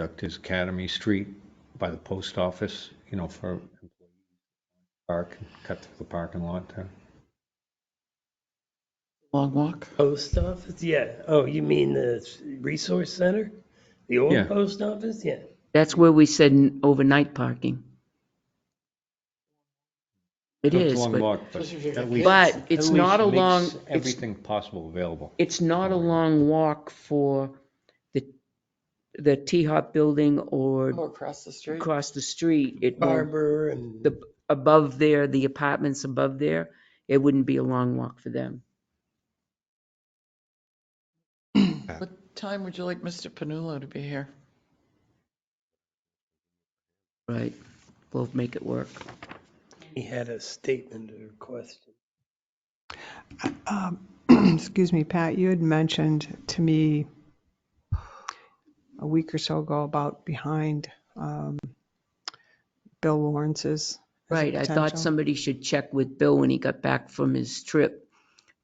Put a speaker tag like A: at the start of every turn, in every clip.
A: Conduct is Academy Street by the post office, you know, for park, cut through the parking lot uh, there.
B: Long walk?
C: Post office, yeah. Oh, you mean the resource center? The old
A: Yeah.
C: post office, yeah.
B: That's where we said n- overnight parking. It
A: It's a
B: is,
A: long
B: but,
A: walk, but at least-
B: but it's
A: at
B: not a
A: least
B: long,
A: makes
B: it's,
A: Everything possible available.
B: it's not a long walk for the, the T-Hop building or
D: Or across the street.
B: across the street. It won't,
E: Um,
C: Barber and
B: the, above there, the apartments above there, it wouldn't be a long walk for them.
D: What time would you like Mr. Panula to be here?
B: Right, we'll make it work.
C: he had a statement or question.
F: Um, Excuse me, Pat, you had mentioned to me a week or so ago about behind um, Bill Lawrence's. as a
B: Right, I thought
F: potential.
B: somebody should check with Bill when he got back from his trip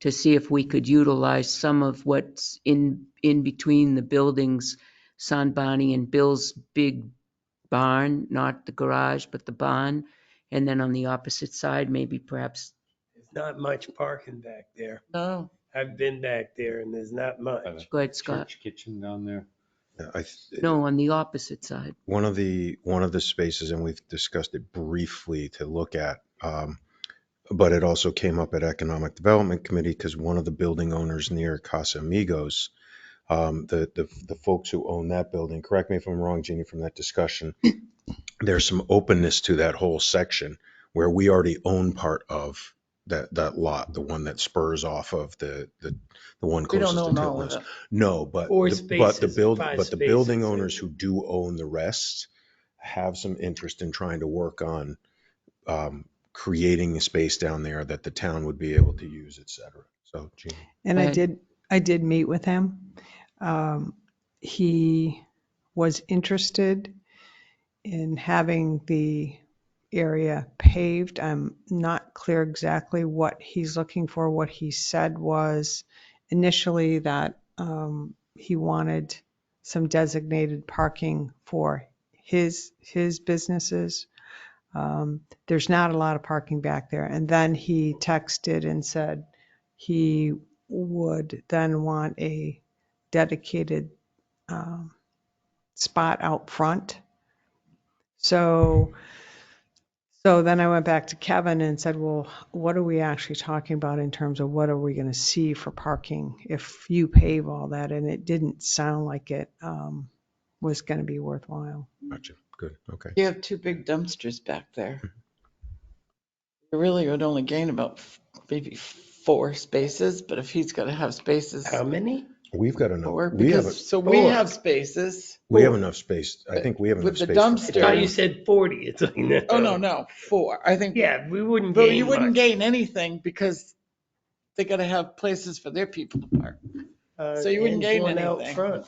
B: to see if we could utilize some of what's in, in between the buildings, San Bonnie and Bill's big barn, not the garage, but the barn. And then on the opposite side, maybe perhaps,
C: There's not much parking back there.
D: No,
C: I've been back there and there's not much.
B: go ahead, Scott.
A: Church kitchen down there.
E: Yeah, I, th-
B: No, on the opposite side.
E: one of the, one of the spaces, and we've discussed it briefly to look at, um, but it also came up at Economic Development Committee because one of the building owners near Casa Amigos, um, the, the, the folks who own that building, correct me if I'm wrong, Jeannie, from that discussion, there's some openness to that whole section where we already own part of that, that lot, the one that spurs off of the, the, the one
D: we don't
E: closest to
D: know all of
E: Tilton's.
D: it.
E: No, but,
C: Or
E: the- but the
C: spaces,
E: build,
C: five
E: but the building
C: spaces.
E: owners who do own the rest have some interest in trying to work on um, creating a space down there that the town would be able to use, et cetera. So, Gene,
F: And I
B: Right.
F: did, I did meet with him. Um, He was interested in having the area paved. I'm not clear exactly what he's looking for. What he said was initially that um, he wanted some designated parking for his, his businesses. Um, There's not a lot of parking back there. And then he texted and said he would then want a dedicated um, spot out front. So, so then I went back to Kevin and said, well, what are we actually talking about in terms of what are we going to see for parking if you pave all that? And it didn't sound like it um, was going to be worthwhile.
E: gotcha. Good. Okay.
D: You have two big dumpsters back there. You really would only gain about f- maybe four spaces, but if he's gonna have spaces,
C: How many?
E: We've got
D: four,
E: enough, we have,
D: because, so we
C: four.
D: have spaces.
E: we have enough space. I think we have enough
D: With the
E: space. for
C: I
D: dumpster.
C: thought you
E: everyone.
C: said 40. It's like, no.
D: Oh, no, no, four. I think,
C: Yeah, we wouldn't
D: but you
C: gain
D: wouldn't
C: much.
D: gain anything because they gotta have places for their people to park.
C: Uh,
D: so you wouldn't
C: and
D: gain
C: one out
D: anything.
C: front.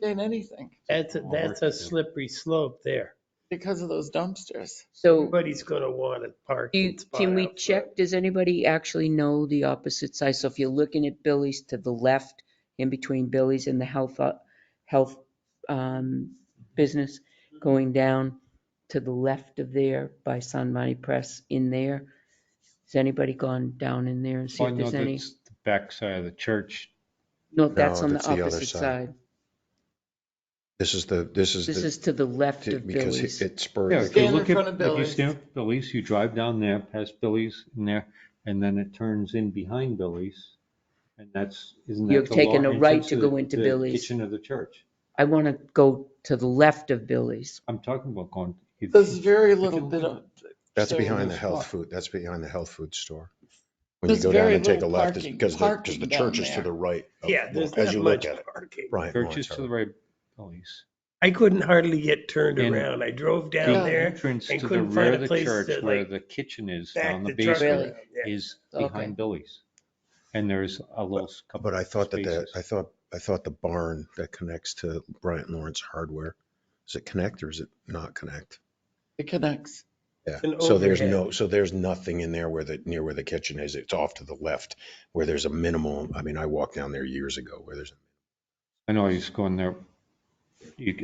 D: Gain anything
C: That's, a-
A: Well,
C: that's a
A: we're- yeah.
C: slippery slope there.
D: because of those dumpsters.
B: So
C: Everybody's gonna want a
B: do
C: parking
B: you-
C: spot.
B: can we
C: out front.
B: check, does anybody actually know the opposite side? So if you're looking at Billy's to the left, in between Billy's and the health, uh, health um, business,
A: Mm-hmm.
B: going down to the left of there by San Marino Press in there, has anybody gone down in there and see
A: Well,
B: if
A: no,
B: there's any?
A: Oh, that's the Backside of the church.
B: No, that's
E: No,
B: on the
E: that's the other
B: opposite
E: side.
B: side.
E: This is the, this is
B: This
E: the,
B: is to the left
E: to-
B: of
E: because
B: Billy's.
E: it- it
A: Yeah,
E: spurs.
A: if you
D: Stand in
A: look at,
D: front of
A: if you
D: Billy's.
A: stand at Billy's, you drive down there, past Billy's in there, and then it turns in behind Billy's. And that's, isn't that
B: You're
A: the
B: taking
A: law
B: a right
A: entrance
B: to
A: the-
B: go into
A: the
B: Billy's.
A: Kitchen of the church.
B: I want to go to the left of Billy's.
A: I'm talking about going. if-
D: There's very
A: you
D: little bit
A: look
D: of.
E: That's
D: so-
E: behind the
A: There's
E: health
A: what?
E: food, that's behind the health food store. When you
D: There's
E: go down
D: very
E: and take a
D: little
E: left, it's
D: parking-
E: because the, because
D: parking
E: the
D: down
E: church is to
D: there.
E: the right. of-
C: Yeah, there's
E: as
C: not
E: you look
C: much
E: at it.
C: parking.
E: Bryant
A: Church
E: Lawrence,
A: is to the right, of Billy's.
C: I couldn't hardly get turned
A: And-
C: around. I drove
A: The
C: down
D: Yeah.
C: there,
A: entrance
C: and
A: to the
C: couldn't
A: rear
C: find
A: of
C: a
A: the
C: place
A: church
C: to,
A: where
C: like,
A: the kitchen is
C: back
A: down
C: the
A: the
C: truck
A: basement
C: around.
B: Really?
C: Yeah.
A: is
B: Okay.
A: behind Billy's. And there's a little couple.
E: But I thought that the,
A: spaces.
E: I thought, I thought the barn that connects to Bryant Lawrence Hardware, is it connect or is it not connect?
D: It connects.
E: Yeah,
C: an
E: so there's
C: overhead.
E: no, so there's nothing in there where the, near where the kitchen is. It's off to the left where there's a minimal, I mean, I walked down there years ago where there's,
A: I know I used to go in there You